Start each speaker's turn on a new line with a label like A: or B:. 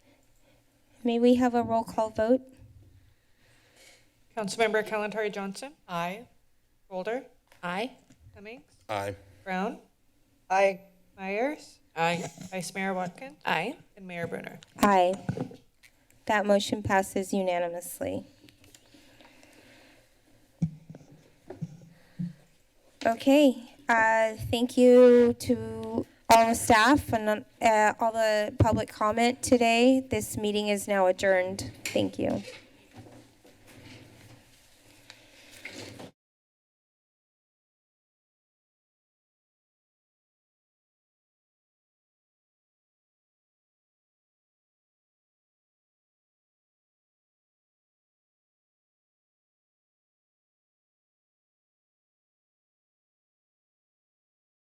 A: May we have a roll call vote?
B: Councilmember Kalentari Johnson.
C: Aye.
B: Boulder.
C: Aye.
B: Cummings.
D: Aye.
B: Brown. Aye. Myers.
C: Aye.
B: Vice Mayor Watkins.
C: Aye.
B: And Mayor Brunner.
A: Aye. That motion passes unanimously. Okay, uh, thank you to all the staff and uh, all the public comment today. This meeting is now adjourned. Thank you.